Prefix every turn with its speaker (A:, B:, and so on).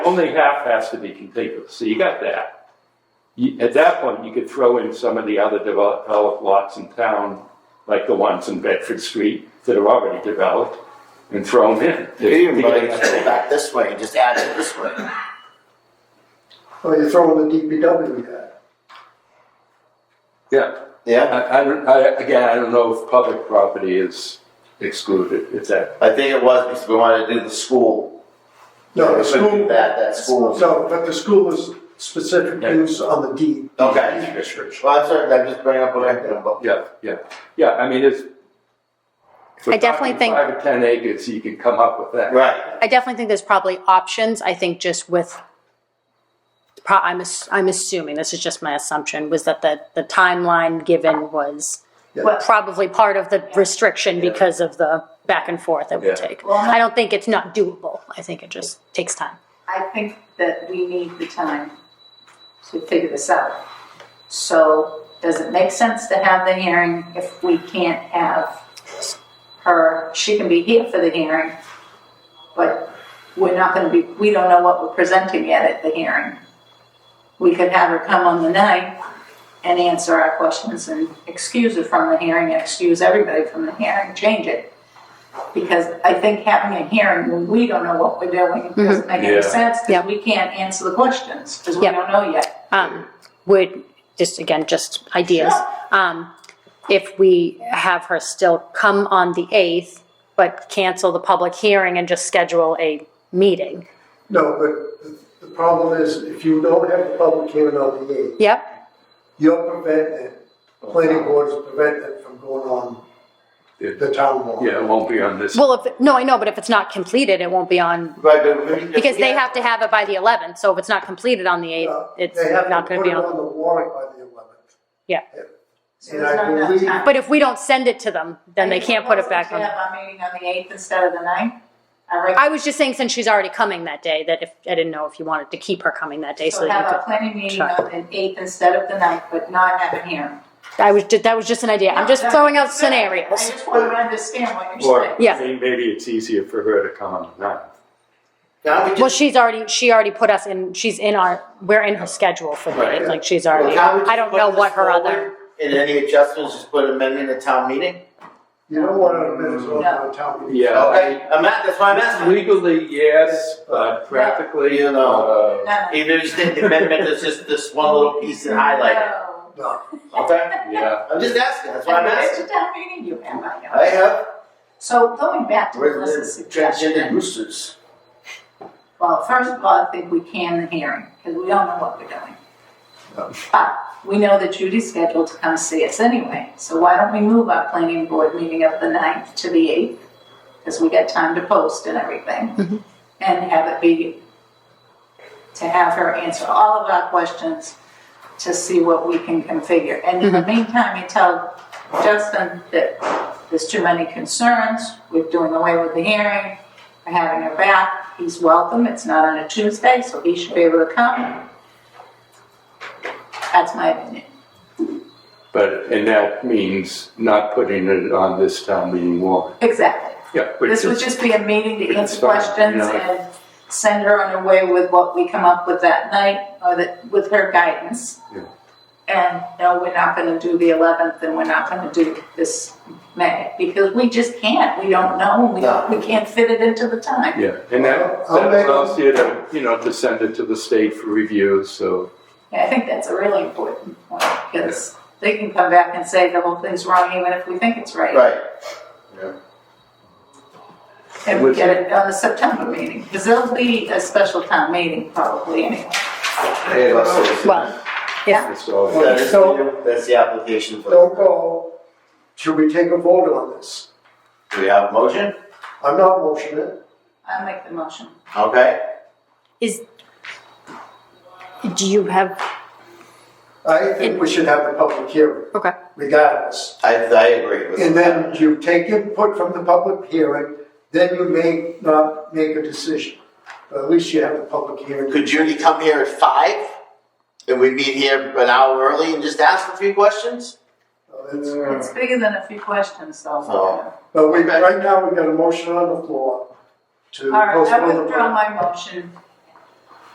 A: Only half has to be contiguous, so you got that. You- At that point, you could throw in some of the other develop- developed lots in town, like the ones in Bedford Street that are already developed, and throw them in.
B: You can even
A: To
B: bring
A: get-
B: it back this way and just add it this way.
C: Well, Oh, you're throwing the DPW at.
A: Yeah,
B: Yeah,
A: I, I don't, I, again, I don't know if public property is excluded, if that,
B: I think it was because we wanted to do the school.
C: No, the
B: We couldn't do
C: school,
B: That, that school.
C: no, but the school is specific use on the deed.
B: Okay. Well, I'm sorry, I'm just bringing up what I think about.
A: yeah, yeah, yeah, I mean, it's.
D: I definitely think-
A: Five or ten acres, you can come up with that.
B: Right,
D: I definitely think there's probably options. I think just with, pro- I'm, ass- I'm assuming, this is just my assumption, was that the, the timeline given was probably part of the restriction because of the back and forth it
A: Yeah.
D: would take. I don't think it's not doable. I think it just takes time.
E: I think that we need the time to figure this out. So does it make sense to have the hearing if we can't have her, she can be here for the hearing, but we're not gonna be, we don't know what we're presenting yet at the hearing. We could have her come on the night and answer our questions and excuse her from the hearing, and excuse everybody from the hearing, change it. Because I think having a hearing when we don't know what we're doing doesn't make
A: Yeah.
E: any sense,
D: Yeah.
E: because we can't answer the questions, because we
D: Yeah.
E: don't know yet.
D: Um, would, just again, just ideas.
E: Sure.
D: Um, if we have her still come on the 8th, but cancel the public hearing and just schedule a meeting.
C: No, but the- the problem is if you don't have the public hearing on the eighth,
D: Yep,
C: you're preventing, the planning board is preventing it from going on the town law.
A: Yeah, it won't be on this.
D: Well, if, no, I know, but if it's not completed, it won't be on,
B: right, but we-
D: because they have to have it by the 11th, so if it's not completed on the 8th,
C: Uh,
D: it's
C: They have
D: not
C: to
D: gonna
C: put
D: be
C: it on
D: on.
C: the warrant by the eleventh.
D: Yeah.
E: So
C: And
E: there's
C: I
E: not enough
C: believe,
E: time.
D: But if we don't send it to them, then they can't put it back
E: Are you
D: on.
E: proposing to have our meeting on the eighth instead of the ninth? I reckon
D: I was just saying, since she's already coming that day, that if, I didn't know if you wanted to keep her coming that day, so
E: we'll
D: that
E: have
D: you
E: our planning meeting
D: try.
E: on the eighth instead of the ninth, but not have a hearing.
D: could, I was, ju- that was just an idea, I'm just throwing out
E: I
D: scenarios.
E: just want to understand what you're
A: Or
E: saying.
D: Yeah.
A: may- maybe it's easier for her to come on the ninth.
B: Now we
D: Well,
B: just,
D: she's already, she already put us in, she's in our, we're in her schedule for the,
A: Right.
D: eighth, like, she's
B: well,
D: already,
B: now we just
D: I don't
B: put
D: know
B: this
D: what her other,
B: forward, And any adjustments, just put amendment at town meeting?
C: you don't want to admit it's on
E: No.
C: the town meeting.
A: Yeah.
B: Okay, I'm at, that's why I'm asking.
A: Legally, yes, but practically,
B: You know.
E: No, no.
B: Even if you think the amendment is just this one little piece and highlight it,
E: No.
C: No.
B: okay?
A: uh, Yeah,
B: I'm just asking, that's why
E: And
B: I'm
E: where's
B: asking.
E: the town meeting you have, I know.
B: I have,
E: So going back to Melissa's
B: where's the transgender
E: suggestion,
B: roosters?
E: well, first of all, I think we can the hearing, because we don't know what we're doing. But we know that Judy's scheduled to come see us anyway, so why don't we move our planning board meeting of the ninth to the eighth? Because we got time to post and everything, and have it be, to have her answer all of our questions, to see what we can configure. And in the meantime, you tell Justin that there's too many concerns, we're doing away with the hearing, we're having her back, he's welcome, it's not on a Tuesday, so he should be able to come. That's my opinion.
A: but, and that means not putting it on this town meeting warrant.
E: Exactly.
A: Yeah. which
E: This would
A: is-
E: just be a meeting to
A: which
E: answer
A: is fine, you
E: questions
A: know.
E: and send her on her way with what we come up with that night or that, with her guidance.
A: Yeah.
E: And no, we're not gonna do the eleventh and we're not gonna do this May, because we just can't, we don't know, we, don't- we can't fit it into the time.
A: Yeah, and that,
C: I'll
A: that
C: make a-
A: allows you to, you know, to send it to the state for review, so,
E: I think that's a really important point, because they can come back and say the whole thing's wrong even if we think it's right.
B: Right.
E: And we get it on the September meeting, because there'll be a special town meeting probably anyway.
B: Hey, that's-
D: well,
A: it's all.
B: That is the- That's the application for,
C: Don't go, should we take a vote on this?
B: do we have a motion?
C: I'm not motioning it.
E: I make the motion.
B: Okay,
D: is, do you have,
C: I think we should have the public hearing
D: okay.
C: regardless.
B: I, I agree with.
C: And then you take input from the public hearing, then you may not make a decision. But at least you have the public hearing.
B: Could Judy come here at five? And we meet here an hour early and just ask a few questions?
C: So it's-
E: It's bigger than a few questions, though.
B: Oh.
C: But we, right now, we've got a motion on the floor to
E: All right, I
C: postpone the
E: withdraw
C: vote.
E: my motion